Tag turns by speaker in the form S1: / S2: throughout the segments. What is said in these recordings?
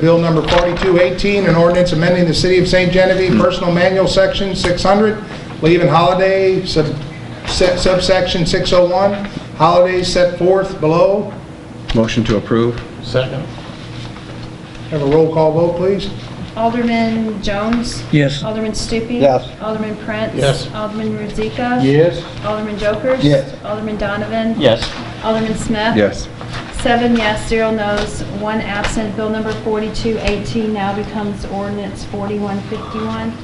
S1: Bill number 4218, an ordinance amending the City of St. Genevieve Personal Manual Section 600, leave and holiday sub- se- subsection 601, holidays set forth below.
S2: Motion to approve?
S3: Second.
S1: Have a roll call vote, please.
S4: Alderman Jones?
S5: Yes.
S4: Alderman Stupi?
S2: Yes.
S4: Alderman Prince?
S3: Yes.
S4: Alderman Rozika?
S2: Yes.
S4: Alderman Jokers?
S2: Yes.
S4: Alderman Donovan?
S3: Yes.
S4: Alderman Smith?
S2: Yes.
S4: Seven yes, zero no's, one absent. Bill number 4218 now becomes ordinance 4151.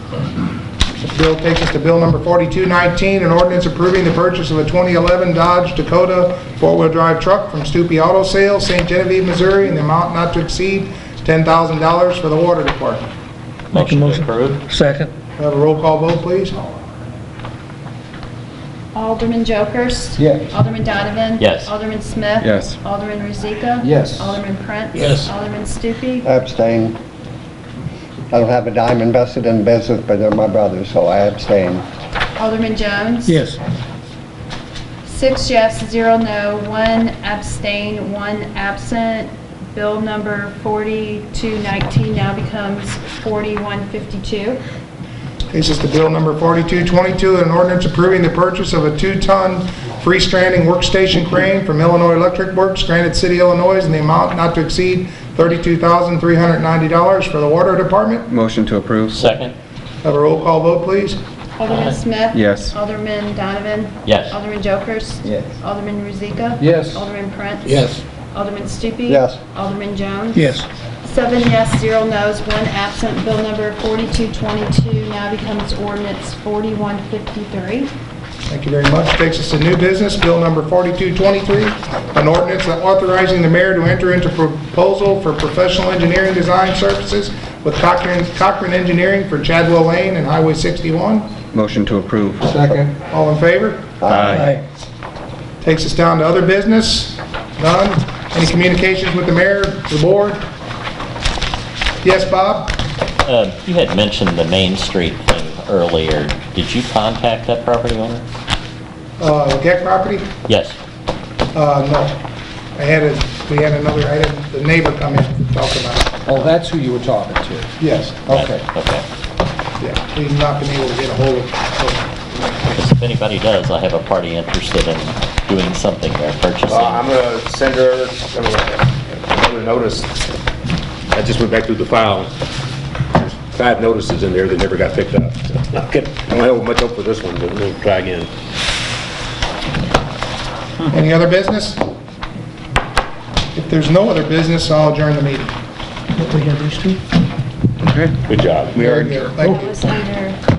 S1: This bill takes us to Bill number 4219, an ordinance approving the purchase of a 2011 Dodge Dakota four-wheel drive truck from Stupi Auto Sales, St. Genevieve, Missouri, in the amount not to exceed $10,000 for the Water Department.
S5: Make a
S3: Motion
S5: motion.
S3: approved.
S5: Second.
S1: Have a roll call vote, please.
S4: Alderman Jokers?
S2: Yes.
S4: Alderman Donovan?
S3: Yes.
S4: Alderman Smith?
S2: Yes.
S4: Alderman Rozika?
S2: Yes.
S4: Alderman Prince?
S3: Yes.
S4: Alderman Stupi?
S6: Abstain. I don't have a dime invested in business, but they're my brothers, so I abstain.
S4: Alderman Jones?
S5: Yes.
S4: Six yes, zero no, one abstain, one absent. Bill number 4219 now becomes 4152.
S1: This is the bill number 4222, an ordinance approving the purchase of a two-ton freestanding workstation crane from Illinois Electric Works, Granite City, Illinois, in the amount not to exceed $32,390 for the Water Department.
S2: Motion to approve?
S3: Second.
S1: Have a roll call vote, please.
S4: Alderman
S3: Aye.
S4: Smith?
S2: Yes.
S4: Alderman Donovan?
S3: Yes.
S4: Alderman Jokers?
S6: Yes.
S4: Alderman Rozika?
S2: Yes.
S4: Alderman Prince?
S3: Yes.
S4: Alderman Stupi?
S6: Yes.
S4: Alderman Jones?
S5: Yes.
S4: Seven yes, zero no's, one absent. Bill number 4222 now becomes ordinance 4153.
S1: Thank you very much. Takes us to new business, bill number 4223, an ordinance authorizing the mayor to enter into proposal for professional engineering design services with Cochran Cochran Engineering for Chadwell Lane and Highway 61.
S2: Motion to approve?
S6: Second.
S1: All in favor?
S2: Aye.
S1: Takes us down to other business. None. Any communications with the mayor, the board? Yes, Bob?
S7: Uh, You had mentioned the Main Street thing earlier. Did you contact that property owner?
S1: Uh, Gek property?
S7: Yes.
S1: Uh, no. I had a, we had another, I had the neighbor come in and talk about it.
S8: Oh, that's who you were talking to.
S1: Yes,
S8: Okay.
S7: Okay.
S1: yeah. He's not been able to get a hold of, so,
S7: If anybody does, I have a party interested in doing something there,
S9: Uh, I'm
S7: purchasing.
S9: gonna send her another notice. I just went back through the file. There's Five notices in there that never got picked up. I don't have much hope for this one, but we'll try again.
S1: any other business? If there's no other business, I'll adjourn the meeting.
S5: What we have these two?
S2: Okay.
S9: Good job.
S2: We are
S1: Very good. Thank you.
S4: That was under